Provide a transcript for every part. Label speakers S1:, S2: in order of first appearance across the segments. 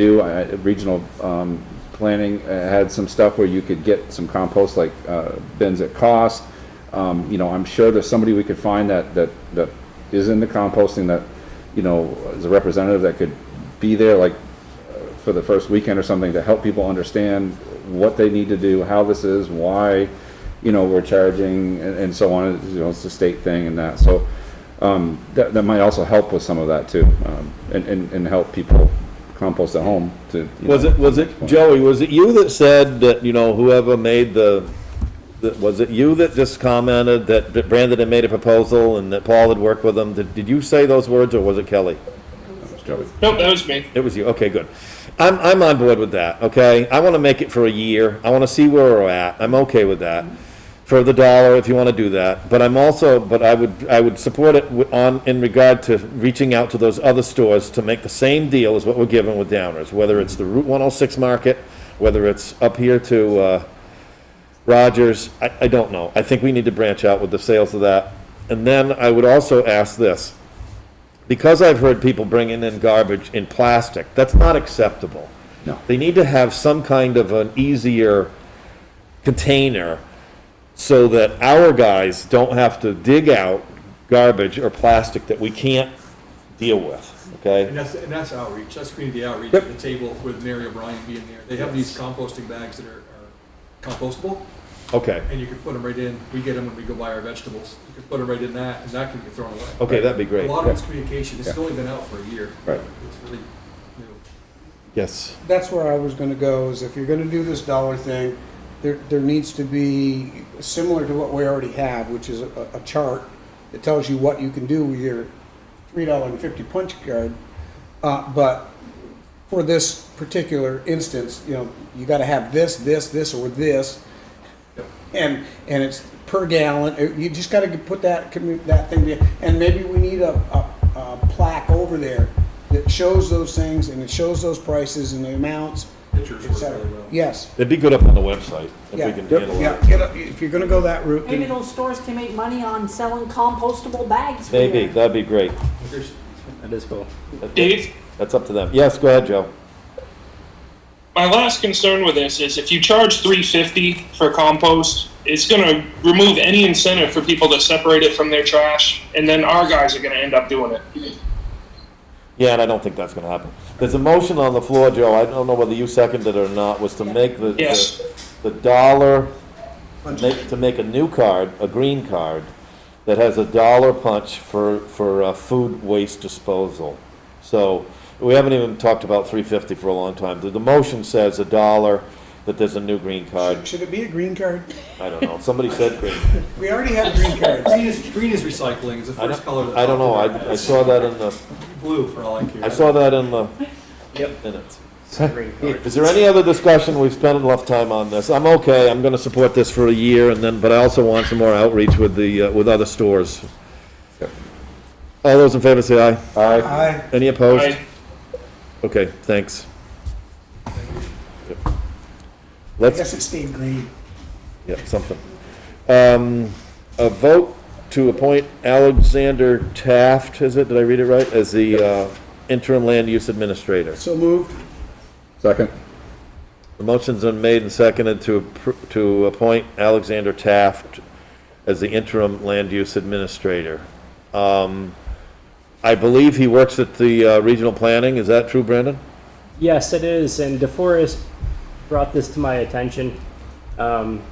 S1: do, I, I- regional, um, planning uh, had some stuff where you could get some compost, like, uh, bins at cost. Um, you know, I'm sure there's somebody we could find that, that, that is in the composting that, you know, is a representative that could be there, like, uh, for the first weekend or something, to help people understand what they need to do, how this is, why, you know, we're charging, and, and so on, you know, it's a state thing and that, so, um, that, that might also help with some of that too, um, and, and, and help people compost at home to. you
S2: Was
S1: know.
S2: it, was it, Joey, was it you that said that, you know, whoever made the, that- was it you that just commented that that Brandon had made a proposal and that Paul had worked with him? Did, did you say those words or was it Kelly?
S1: Joey.
S3: Nope, that was me.
S2: It was you, okay, good. I'm, I'm on board with that, okay? I want to make it for a year, I want to see where we're at, I'm okay with that. For the dollar, if you want to do that, but I'm also, but I would, I would support it wi- on, in regard to reaching out to those other stores to make the same deal as what we're given with Downers, whether it's the Route 106 market, whether it's up here to, uh, Rogers, I, I don't know. I think we need to branch out with the sales of that. And then I would also ask this. Because I've heard people bringing in garbage in plastic, that's not acceptable.
S1: No.
S2: They need to have some kind of an easier container so that our guys don't have to dig out garbage or plastic that we can't deal with,
S4: And
S2: okay?
S4: that's, and that's outreach, that's community outreach,
S2: Yep.
S4: at the table with Mary O'Brien being there. They have these composting bags that are are compostable,
S2: Okay,
S4: and you can put them right in, we get them when we go buy our vegetables. You can put them right in that, and that can get thrown away.
S2: okay, that'd be great.
S4: A lot of it's communication, this has only been out for a year.
S1: Right.
S4: It's really new.
S2: Yes,
S5: that's where I was gonna go, is if you're gonna do this dollar thing, there, there needs to be, similar to what we already have, which is a, a chart that tells you what you can do with your three dollar and fifty punch card. Uh, but for this particular instance, you know, you gotta have this, this, this, or this. And, and it's per gallon, Uh, you just gotta put that, commu- that thing, there. and maybe we need a, a, a plaque over there that shows those things, and it shows those prices and the amounts,
S4: Pictures
S5: et
S4: work
S5: cetera.
S4: really well.
S5: Yes,
S2: it'd be good up on the website if we
S5: yeah,
S2: can handle it.
S5: yeah, get a- if you're gonna go that route,
S6: Maybe
S5: then,
S6: those stores can make money on selling compostable bags for
S2: Maybe,
S6: you.
S2: that'd be great.
S4: There's-
S3: Dave,
S2: That's up to them. Yes, go ahead, Joe.
S3: my last concern with this is if you charge 350 for compost, it's going to remove any incentive for people to separate it from their trash, and then our guys are going to end up doing it.
S2: Yeah, and I don't think that's gonna happen. There's a motion on the floor, Joe, I don't know whether you seconded it or not, was to make the, the-
S3: Yes.
S2: the dollar, make, to make a new card, a green card, that has a dollar punch for, for, uh, food waste disposal. So, we haven't even talked about three fifty for a long time. The, the motion says a dollar, that there's a new green card,
S5: should it be a green card?
S2: I don't know, somebody said green.
S5: We already have green cards.
S4: Green is, green is recycling, is the
S2: I
S4: first color.
S2: don't,
S4: that
S2: I don't know,
S4: popped in my
S2: I, I
S4: head.
S2: saw that in the,
S4: Blue, for all I care.
S2: I saw that in the minutes. Is there any other discussion? We've spent enough time on this. I'm okay, I'm gonna support this for a year and then, but I also want some more outreach with the, uh, with other stores.
S1: Yep.
S2: All those in favor say aye.
S1: Aye.
S5: Aye.
S2: Any opposed?
S3: Aye.
S2: Okay, thanks. Yep.
S5: I
S2: Let's,
S5: guess it stayed green.
S2: yeah, something. Um, a vote to appoint Alexander Taft, is it? Did I read it right? As the, uh, interim land use administrator.
S5: So moved.
S1: Second?
S2: The motion's been made and seconded to, appro- to appoint Alexander Taft as the interim land use administrator. Um, I believe he works at the uh, regional planning, is that true, Brandon?
S7: Yes, it is, and DeForest brought this to my attention. Um,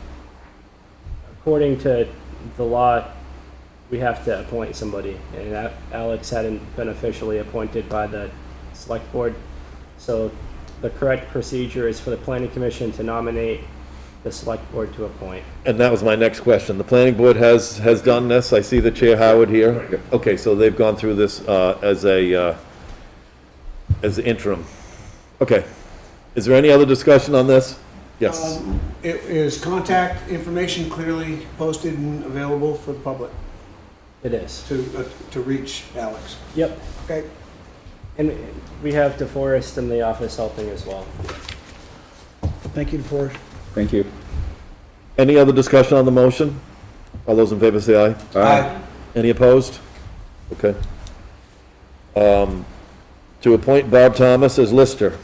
S7: according to the law, we have to appoint somebody, and A- Alex hadn't been officially appointed by the select board. So the correct procedure is for the planning commission to nominate the select board to appoint.
S2: And that was my next question. The planning board has, has done this, I see the chair Howard here. Okay, so they've gone through this uh, as a, uh, as the interim. Okay. Is there any other discussion on this? Yes.
S5: Um, It is contact information clearly posted and available for the public
S7: It is.
S5: to, uh, to reach Alex.
S7: Yep,
S5: Okay,
S7: and we have DeForest in the office helping as well.
S5: thank you for,
S1: Thank you.
S2: Any other discussion on the motion? All those in favor say aye.
S5: aye,
S2: Any opposed? Okay. Um, To appoint Bob Thomas as lister.